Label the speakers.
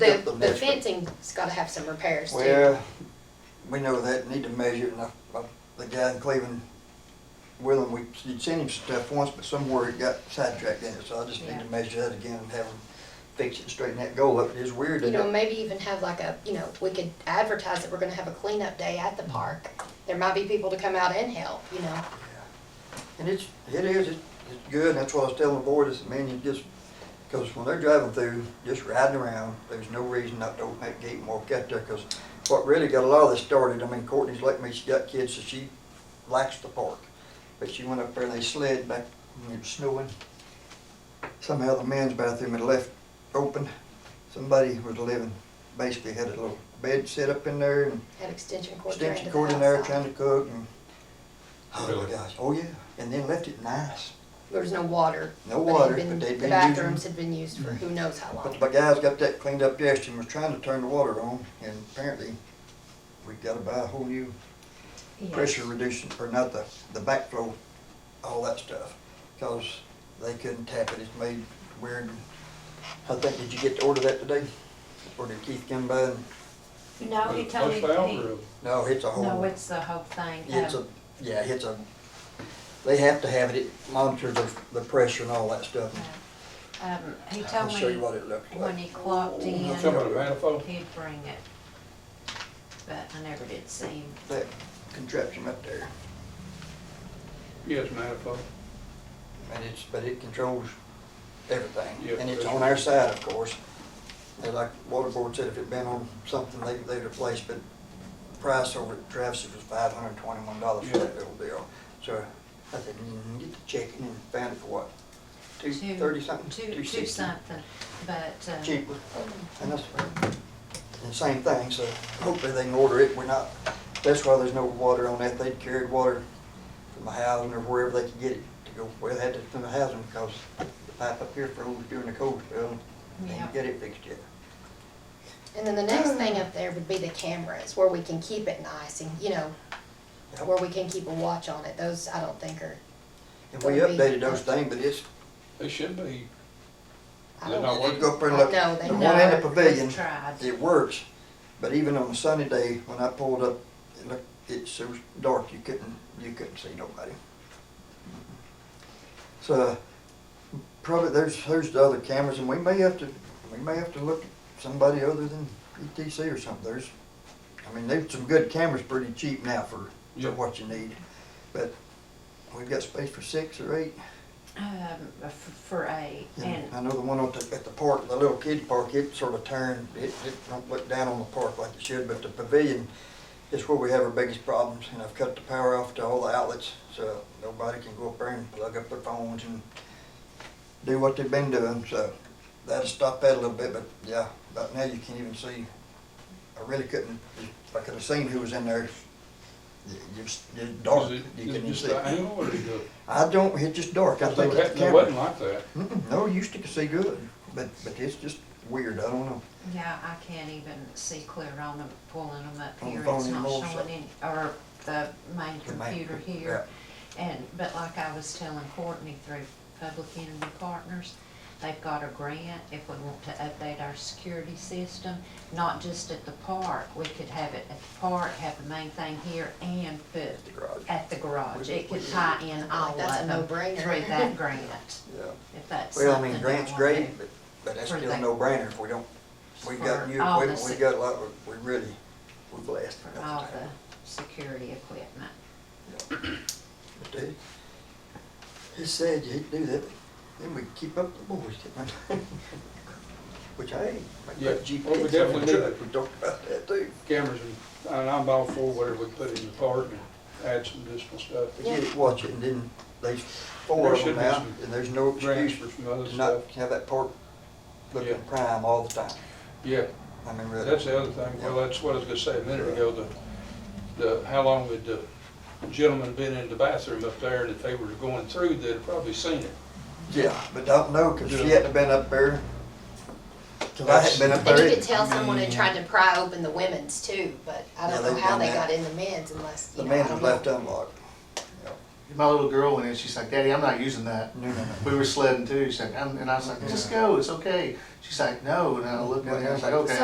Speaker 1: The,
Speaker 2: Get the
Speaker 1: the
Speaker 2: measurement.
Speaker 1: fencing's gotta have some repairs too.
Speaker 3: Well, we know that, need to measure it, and I, I- the guy in Cleveland, Willem, we, you'd sent him stuff once, but somewhere it got sidetracked in it, so I just need
Speaker 1: Yeah.
Speaker 3: to measure that again and have him fix it, straighten that goal up, it is weird,
Speaker 1: You
Speaker 3: isn't
Speaker 1: know,
Speaker 3: it?
Speaker 1: maybe even have like a, you know, we could advertise that we're gonna have a cleanup day at the park. There might be people to come out and help, you know.
Speaker 3: And it's, it is, it's, it's good, and that's why I was telling the board, I said, man, you just, cause when they're driving through, just riding around, there's no reason not to open that gate and walk out there, cause what really got a lot of this started, I mean, Courtney's like me, she got kids, so she likes the park. But she went up there and they slid back when it was snowing. Somehow the men's bathroom had left open. Somebody was living, basically had a little bed set up in there and
Speaker 1: Had extension cord turned to
Speaker 3: extension
Speaker 1: the
Speaker 3: cord in there trying
Speaker 1: outside.
Speaker 3: to cook and. Oh my
Speaker 2: Really?
Speaker 3: gosh, oh yeah, and then left it nice.
Speaker 1: There was no water.
Speaker 3: No
Speaker 1: they'd
Speaker 3: water,
Speaker 1: been-
Speaker 3: but they'd
Speaker 1: The
Speaker 3: been
Speaker 1: bathrooms
Speaker 3: using- Mm-hmm.
Speaker 1: had been used for who knows how
Speaker 3: But
Speaker 1: long.
Speaker 3: the guys got that cleaned up yesterday and was trying to turn the water on and apparently we gotta buy a whole new pressure reducing, or not the, the backflow, all that stuff. Cause they couldn't tap it, it's made weird. I think, did you get to order that today? Or did Keith come by and,
Speaker 4: No, he
Speaker 2: That's
Speaker 4: told me,
Speaker 2: the
Speaker 4: he,
Speaker 2: algorithm.
Speaker 3: no, Oh, it's a whole.
Speaker 4: no, it's the whole thing.
Speaker 3: It's
Speaker 4: uh,
Speaker 3: a, yeah, it's a, they have to have it, it monitors the, the pressure and all that stuff.
Speaker 4: Um, he
Speaker 3: I'll
Speaker 4: told
Speaker 3: show you what
Speaker 4: me
Speaker 3: it looked
Speaker 4: when
Speaker 3: like.
Speaker 4: he clocked in,
Speaker 2: You talking about a manifold?
Speaker 4: he'd bring it. But I never did see him.
Speaker 3: That contraption up there,
Speaker 2: Yes, manifold.
Speaker 3: and it's, but it controls everything,
Speaker 2: Yeah,
Speaker 3: and it's
Speaker 2: pressure.
Speaker 3: on our side, of course. And like water board said, if it'd been on something, they, they'd replace, but the price over at Travis's was five hundred and twenty-one dollars for that
Speaker 2: Yeah.
Speaker 3: little deal. So I said, mm, get the check and then found it for what, two
Speaker 4: Two-
Speaker 3: thirty something?
Speaker 4: Two, two
Speaker 3: 260?
Speaker 4: something, but, uh,
Speaker 3: cheaper, and that's, and same thing, so hopefully they can order it, we're not, that's why there's no water on that, they carried water from the housing or wherever they could get it to go, well, they had it from the housing, because the pipe up here froze during the cold spell, they
Speaker 4: Yeah.
Speaker 3: didn't get it fixed yet.
Speaker 1: And then the next thing up there would be the cameras, where we can keep it nice and, you know,
Speaker 3: Yep.
Speaker 1: where we can keep a watch on it. Those, I don't think are,
Speaker 3: And we
Speaker 1: Gonna be-
Speaker 3: updated those things, but it's,
Speaker 2: They should be.
Speaker 1: I
Speaker 2: They're
Speaker 1: don't
Speaker 2: not
Speaker 1: know.
Speaker 3: they go up there and
Speaker 1: I
Speaker 3: look,
Speaker 1: know, they
Speaker 3: the one in the
Speaker 1: know.
Speaker 3: pavilion,
Speaker 4: We've tried.
Speaker 3: it works, but even on a sunny day, when I pulled up, it looked, it's so dark, you couldn't, you couldn't see nobody. So, probably, there's, there's the other cameras, and we may have to, we may have to look at somebody other than ETC or something, there's, I mean, they've some good cameras pretty cheap now for,
Speaker 2: Yeah.
Speaker 3: for what you need, but we've got space for six or eight.
Speaker 4: um, f- for a, and
Speaker 3: And I know the one at the, at the park, the little kiddie park, it sort of turned, it, it don't look down on the park like it should, but the pavilion is where we have our biggest problems, and I've cut the power off to all the outlets, so nobody can go up there and plug up their phones and do what they've been doing, so that'll stop that a little bit, but yeah, about now you can't even see. I really couldn't, if I could have seen who was in there, it- it's, it's dark,
Speaker 2: Is
Speaker 3: you
Speaker 2: it-
Speaker 3: couldn't
Speaker 2: is it
Speaker 3: even
Speaker 2: just
Speaker 3: see.
Speaker 2: the angle or is it-
Speaker 3: I don't, it's just dark, I think it's the
Speaker 2: It
Speaker 3: camera.
Speaker 2: wasn't like that.
Speaker 3: Mm-mm, No, you used to see good, but, but it's just weird, I don't know.
Speaker 4: Yeah, I can't even see clear on them, pulling them up
Speaker 3: On the
Speaker 4: here,
Speaker 3: phone
Speaker 4: it's not
Speaker 3: anymore, so-
Speaker 4: showing any, or the main
Speaker 3: The main-
Speaker 4: computer here. And, but like I was telling Courtney through Public Enemy Partners, they've got a grant if we want to update our security system, not just at the park, we could have it at the park, have the main thing here and put
Speaker 3: The garage.
Speaker 4: at the garage,
Speaker 3: We-
Speaker 4: it could
Speaker 3: we-
Speaker 4: tie in all
Speaker 1: That's a
Speaker 4: of them
Speaker 1: no-brainer.
Speaker 4: through that grant,
Speaker 3: Yeah.
Speaker 4: if that's something.
Speaker 3: Well, I mean,
Speaker 4: they
Speaker 3: Grant's
Speaker 4: wanna
Speaker 3: great,
Speaker 4: do.
Speaker 3: but, but that's
Speaker 4: For
Speaker 3: still a
Speaker 4: that.
Speaker 3: no-brainer if we don't, we got
Speaker 4: For
Speaker 3: new
Speaker 4: all the
Speaker 3: equipment, we
Speaker 4: sec-
Speaker 3: got a lot, of- we really, we're blessed.
Speaker 4: for all the security equipment.
Speaker 3: Dude, He said you'd do that, then we keep up the boys, didn't we? Which, hey, like
Speaker 2: Yeah,
Speaker 3: that GPS.
Speaker 2: well, we
Speaker 3: on the
Speaker 2: definitely do
Speaker 3: truck,
Speaker 2: that.
Speaker 3: We talked about that too.
Speaker 2: Cameras and, and I'm all for whatever we put in the park and add some additional stuff.
Speaker 3: We get it, watch it, and then there's four
Speaker 2: There
Speaker 3: of them
Speaker 2: should be
Speaker 3: now,
Speaker 2: some
Speaker 3: and there's no
Speaker 2: Grants
Speaker 3: excuse
Speaker 2: for some other
Speaker 3: to not
Speaker 2: stuff.
Speaker 3: have that park
Speaker 2: Yeah.
Speaker 3: looking prime all the time.
Speaker 2: Yeah,
Speaker 3: I mean, really.
Speaker 2: that's the other thing. Well, that's what I was gonna say a minute ago, the, the, how long had the gentleman been in the bathroom up there and if they were going through, they'd have probably seen it.
Speaker 3: Yeah, but don't know, cause she
Speaker 2: Yeah.
Speaker 3: hadn't been up there. Cause I hadn't been up there.
Speaker 1: And you
Speaker 3: either.
Speaker 1: could tell someone had
Speaker 3: Mm.
Speaker 1: tried to pry open the women's too, but I
Speaker 3: Yeah,
Speaker 1: don't know
Speaker 3: they've
Speaker 1: how
Speaker 3: done
Speaker 1: they
Speaker 3: that.
Speaker 1: got in the men's unless, you
Speaker 3: The
Speaker 1: know, I
Speaker 3: man was
Speaker 1: don't
Speaker 3: left
Speaker 1: know.
Speaker 3: unlocked. Yeah.
Speaker 5: my little girl went in, she's like, Daddy, I'm not using that.
Speaker 3: No, no, no.
Speaker 5: We were sledding too, she's like, I'm, and I was like, just go, it's okay. She's like, no, and I looked at her, I was like, okay.